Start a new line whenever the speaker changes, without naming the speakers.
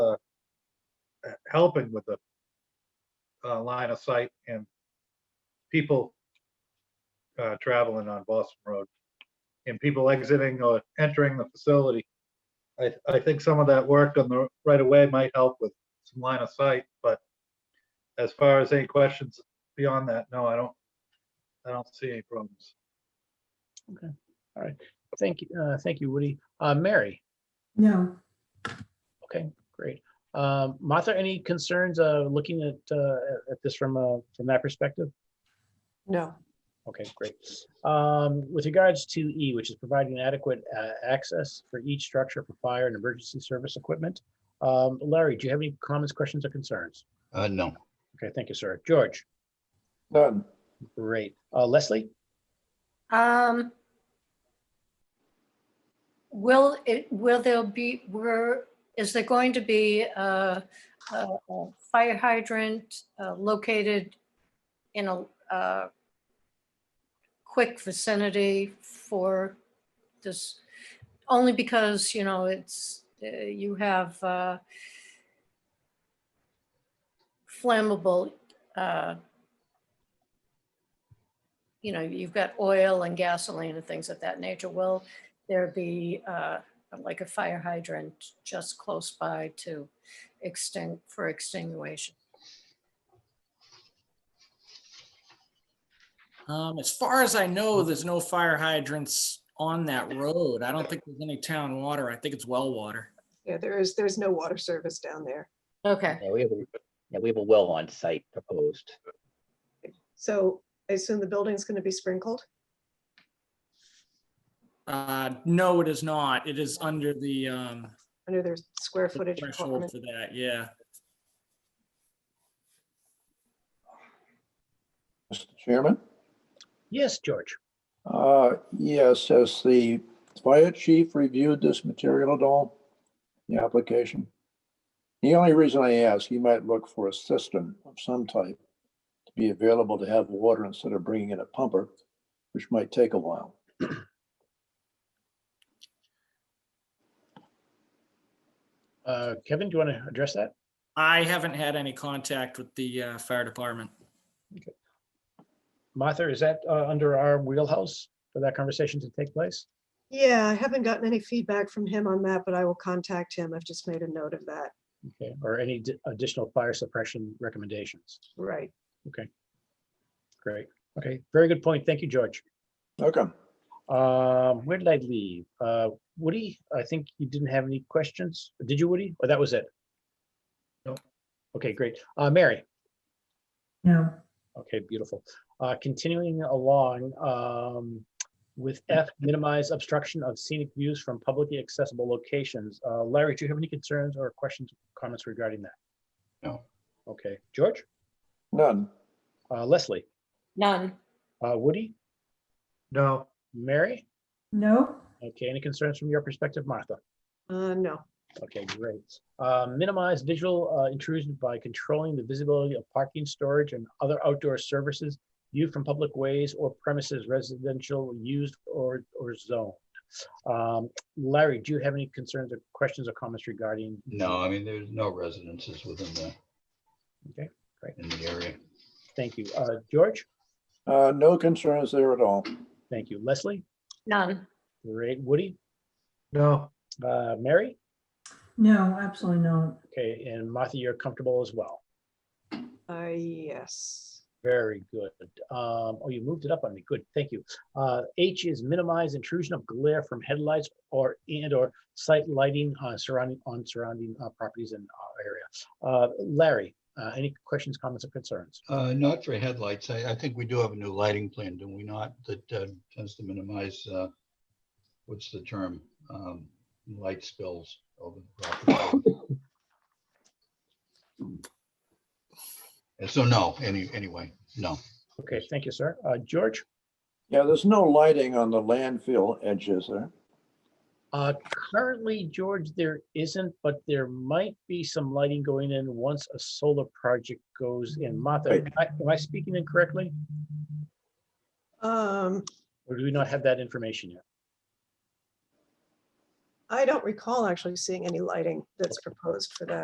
helping with the uh, line of sight and people uh, traveling on Boston Road and people exiting or entering the facility. I, I think some of that work on the right of way might help with some line of sight, but as far as any questions beyond that, no, I don't, I don't see any problems.
Thank you, uh, thank you, Woody. Uh, Mary,
No,
okay, great. Um, Martha, any concerns, uh, looking at, uh, at this from, uh, from that perspective?
No,
Okay, great. Um, With regards to E, which is providing adequate uh, access for each structure for fire and emergency service equipment. um, Larry, do you have any comments, questions, or concerns?
Uh, no,
Okay, thank you, sir. George,
None.
great. Uh, Leslie?
Um. Will it, will there be, were, is there going to be a, a a fire hydrant uh, located in a, uh, quick vicinity for this? Only because, you know, it's, uh, you have, uh, flammable, uh, you know, you've got oil and gasoline and things of that nature. Will there be uh, like a fire hydrant just close by to extinct, for extinguation?
Um, as far as I know, there's no fire hydrants on that road. I don't think there's any town water. I think it's well water.
yeah, there is, there's no water service down there.
Okay,
Yeah, we have, a- yeah, we have a well on site proposed.
So I assume the building's going to be sprinkled?
Uh, no, it is not. It is under the, um,
under their square
the
footage
threshold
requirement.
for that, yeah.
Mr. Chairman?
Yes, George.
Uh, Yes, has the fire chief reviewed this material at all? The application? The only reason I ask, he might look for a system of some type to be available to have water instead of bringing in a pumper, which might take a while.
Uh, Kevin, do you want to address that?
I haven't had any contact with the, uh, fire department.
Martha, is that uh, under our wheelhouse for that conversation to take place?
Yeah, I haven't gotten any feedback from him on that, but I will contact him. I've just made a note of that.
Okay, or any d- additional fire suppression recommendations?
Right.
Great. Okay, very good point. Thank you, George.
Okay,
Um, where did I leave? Uh, Woody, I think you didn't have any questions. Did you, Woody? Or that was it?
No.
Okay, great. Uh, Mary?
no,
Okay, beautiful. Uh, continuing along, um, with F, minimize obstruction of scenic views from publicly accessible locations. Uh, Larry, do you have any concerns or questions, comments regarding that?
no,
Okay, George?
none.
Uh, Leslie?
none.
Uh, Woody?
No,
Mary?
no,
Okay, any concerns from your perspective, Martha?
Uh, no,
Okay, great. Uh, Minimize visual uh, intrusion by controlling the visibility of parking, storage, and other outdoor services viewed from public ways or premises residential used or, or zoned. Um, Larry, do you have any concerns or questions or comments regarding?
no, I mean, there's no residences within the.
Okay, great.
In the area.
Thank you. Uh, George?
Uh, No concerns there at all.
Thank you. Leslie?
None.
Great. Woody?
no.
Uh, Mary?
no, absolutely not.
Okay, and Martha, you're comfortable as well.
uh, yes.
Very good. Um, oh, you moved it up on me. Good, thank you. Uh, H is minimize intrusion of glare from headlights or and or site lighting uh, surrounding on surrounding uh, properties and uh, area. Uh, Larry, uh, any questions, comments, or concerns?
Uh, not for headlights. I, I think we do have a new lighting plan, do we not? That uh, tends to minimize, uh, what's the term? Um, light spills over the property. And so, no, any, anyway, no.
Okay, thank you, sir. Uh, George,
Yeah, there's no lighting on the landfill edges there.
uh, currently, George, there isn't, but there might be some lighting going in once a solar project goes in. Martha,
Right.
am I- am I speaking incorrectly,
Um,
or do we not have that information yet?
I don't recall actually seeing any lighting that's proposed for that.